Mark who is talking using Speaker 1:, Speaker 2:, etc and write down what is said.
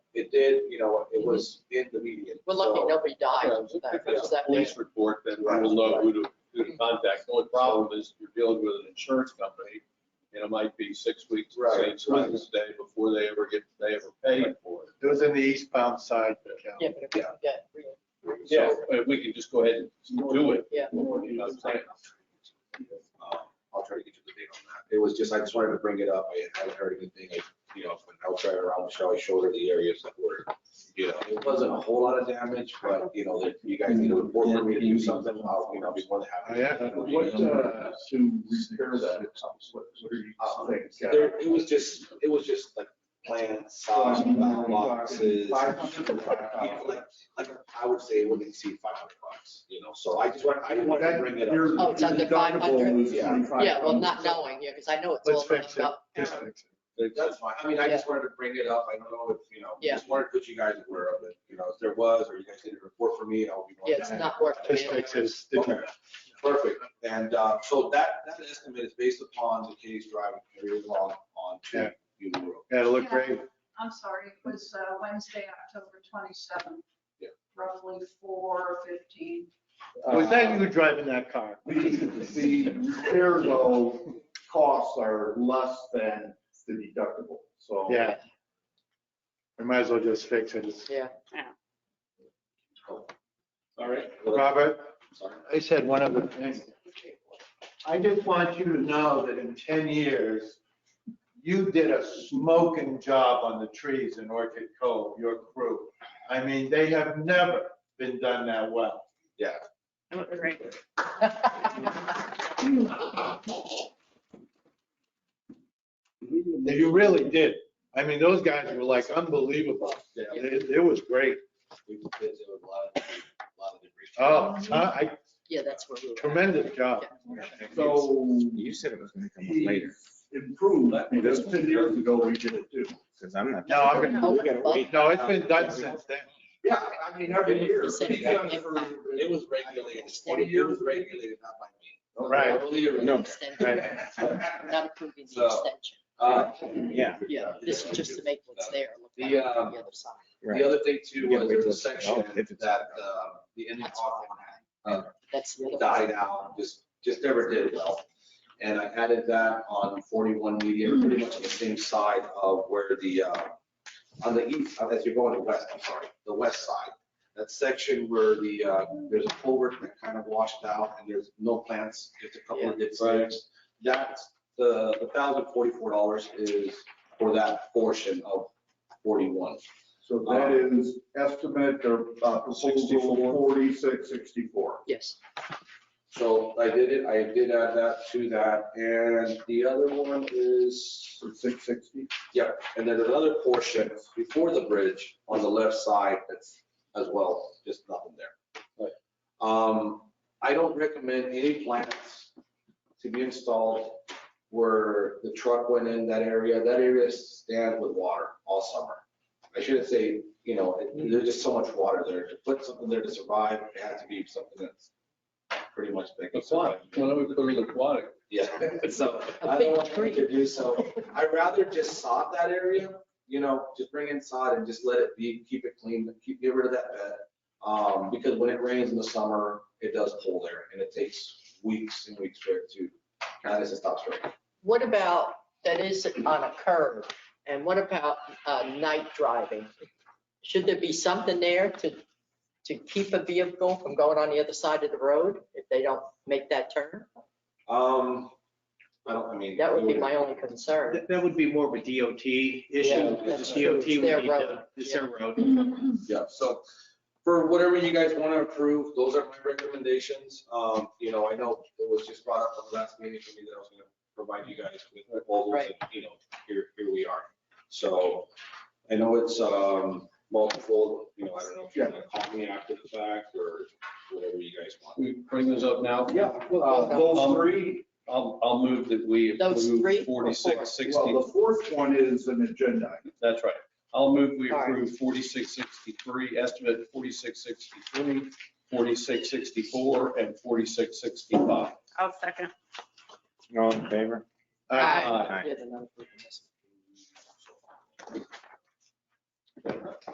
Speaker 1: it did, you know, it was in the media.
Speaker 2: Mm-hmm. We're lucky
Speaker 1: so-
Speaker 2: nobody died.
Speaker 3: Yeah, If
Speaker 2: That
Speaker 3: it's
Speaker 2: was
Speaker 3: a
Speaker 2: that big.
Speaker 3: police report, then we will know who to, who to contact. The only problem is you're dealing with an insurance company, and it might be six weeks,
Speaker 1: Right,
Speaker 3: same
Speaker 1: right.
Speaker 3: business day before they ever get, they ever pay for it.
Speaker 4: It was in the eastbound side. Cal.
Speaker 2: Yeah, but
Speaker 1: um,
Speaker 2: if we could get real-
Speaker 3: So, but we can just go ahead and do it.
Speaker 2: Yeah.
Speaker 3: You know what I'm saying?
Speaker 1: Um, I'll try to get you the date on that. It was just, I just wanted to bring it up. I haven't heard anything, I- you know, when I was driving around, Michelle, I showed her the areas that were, you know, it wasn't a whole lot of damage, but, you know, that you guys need a report for me to do something, I'll, you know, I'll be more than
Speaker 4: Oh,
Speaker 1: happy.
Speaker 4: yeah.
Speaker 5: What, uh, to repair that, what, what are you
Speaker 1: Uh,
Speaker 5: thinking?
Speaker 1: There, it was just, it was just like plants, uh, boxes.
Speaker 4: Five
Speaker 1: you
Speaker 4: hundred.
Speaker 1: know, Like, like, I would say it wouldn't exceed five hundred bucks, you know, so I just want, I didn't want to bring it up.
Speaker 5: Your-
Speaker 2: Oh, it's under
Speaker 5: your deductible
Speaker 2: 500.
Speaker 5: was
Speaker 1: Yeah.
Speaker 5: 25.
Speaker 2: Yeah, well, not knowing, yeah, because I know it's
Speaker 4: Let's
Speaker 2: all
Speaker 4: fix
Speaker 2: messed
Speaker 4: it.
Speaker 2: up.
Speaker 4: Just fix it.
Speaker 1: That's fine. I mean, I just wanted to bring it up. I don't know if, you know,
Speaker 2: Yeah.
Speaker 1: just wanted to put you guys aware of it. You know, if there was, or you guys did a report for me, I'll be. more
Speaker 2: Yeah,
Speaker 1: than
Speaker 2: it's
Speaker 1: happy.
Speaker 2: not working.
Speaker 4: Just fix it.
Speaker 1: Okay, perfect. And, uh, so that, that estimate is based upon the case driving area along on two,
Speaker 4: Yeah.
Speaker 1: you road.
Speaker 4: Yeah, it looked great.
Speaker 6: I'm sorry, it was uh, Wednesday, October 27th.
Speaker 1: Yeah.
Speaker 6: Roughly 4:15.
Speaker 5: Uh,
Speaker 4: Was that you driving that car?
Speaker 5: The, the repair though, costs are less than the deductible, so.
Speaker 4: Yeah. We might as well just fix it. It's-
Speaker 2: Yeah.
Speaker 1: All right.
Speaker 4: Robert,
Speaker 1: Sorry.
Speaker 4: I said one other thing.
Speaker 5: I just want you to know that in 10 years, you did a smoking job on the trees in Orchid Cove, your crew. I mean, they have never been done that well.
Speaker 1: Yeah.
Speaker 4: They- You really did. I mean, those guys were like unbelievable.
Speaker 1: Yeah.
Speaker 4: It, it was great.
Speaker 1: We did it with a lot of, a lot of debris.
Speaker 4: Oh, I,
Speaker 2: Yeah, that's where we were. at.
Speaker 4: tremendous job.
Speaker 5: So
Speaker 7: You said it was gonna come up later,
Speaker 5: he's improved, I mean, that's 10 years ago we did it too.
Speaker 7: because I'm not.
Speaker 4: No, I'm,
Speaker 2: No, well,
Speaker 4: no, it's been done since then.
Speaker 1: Yeah, I mean, every year.
Speaker 2: You said it got-
Speaker 1: It was regulated, twenty years regulated, not by me.
Speaker 4: Right.
Speaker 1: Totally regulated.
Speaker 7: No.
Speaker 2: extension, Not approving the
Speaker 1: So-
Speaker 2: extension.
Speaker 1: Uh,
Speaker 7: Yeah.
Speaker 2: Yeah, this is just to make what's there look
Speaker 1: The, um,
Speaker 2: better on the other side.
Speaker 1: The other thing too
Speaker 7: Yeah,
Speaker 1: was
Speaker 7: wait
Speaker 1: there was
Speaker 7: till
Speaker 1: a
Speaker 7: it's-
Speaker 1: section
Speaker 7: oh, if it's-
Speaker 1: that, uh, the Indian
Speaker 2: That's what
Speaker 1: Hawthorne
Speaker 2: I had.
Speaker 1: uh,
Speaker 2: That's
Speaker 7: Oh.
Speaker 2: the other.
Speaker 1: died out, just, just never did well. And I added that on forty-one median, pretty much on the same side of where the, uh, on the east, uh, as you're going west, I'm sorry, the west side. That section where the, uh, there's a culvert that kind of washed out and there's no plants, just a couple of dead sticks. That's the, the thousand forty-four dollars is for that portion of forty-one.
Speaker 5: So that is estimate or uh, proposal 4664.
Speaker 2: Yes.
Speaker 1: So I did it, I did add that to that, and the other one is,
Speaker 5: For 660?
Speaker 1: yeah, and then another portion before the bridge on the left side, that's as well, just nothing there. Um, I don't recommend any plants to be installed where the truck went in that area, that area stands with water all summer. I shouldn't say, you know, it- there's just so much water there, to put something there to survive, it has to be something that's pretty much big.
Speaker 3: Aquatic, why don't we put it aquatic?
Speaker 1: Yeah, so
Speaker 2: A
Speaker 1: I
Speaker 2: big
Speaker 1: don't want
Speaker 2: tree.
Speaker 1: to do so. I'd rather just sod that area, you know, just bring in sod and just let it be, keep it clean, keep, get rid of that bed. Um, because when it rains in the summer, it does pull there and it takes weeks and weeks for it to, kind of just stops raining.
Speaker 2: What about, that is on a curve, and what about uh, night driving? Should there be something there to, to keep a vehicle from going on the other side of the road if they don't make that turn?
Speaker 1: Um, I don't, I mean.
Speaker 2: That would be my only concern.
Speaker 8: That, that would be more of a DOT issue,
Speaker 2: that's
Speaker 8: because
Speaker 2: true.
Speaker 8: DOT would
Speaker 2: It's
Speaker 8: need
Speaker 2: their
Speaker 8: to,
Speaker 2: road, Mm-hmm.
Speaker 8: it's
Speaker 2: yeah.
Speaker 8: their road.
Speaker 1: Yeah, so for whatever you guys want to approve, those are my recommendations. Um, you know, I know it was just brought up at the last meeting for me that I was going to provide you guys with proposals and, you know, here, here we are. So I know it's, um, multiple, you know, I don't know if you're going to call me after the fact or whatever you guys want.
Speaker 3: We bring those up now.
Speaker 1: Yeah.
Speaker 5: Uh, Those three,
Speaker 3: I'll, I'll move that we
Speaker 2: Those three
Speaker 3: approve
Speaker 2: or four?
Speaker 3: forty-six sixty.
Speaker 5: well, the fourth one is an agenda. item.
Speaker 3: That's right. I'll move we
Speaker 2: All right.
Speaker 3: approve forty-six sixty-three, estimate forty-six sixty-three, forty-six sixty-four, and forty-six sixty-five.
Speaker 9: I'll second.
Speaker 7: All in favor?
Speaker 4: All right.
Speaker 3: Aye.
Speaker 2: Yeah, the number of this.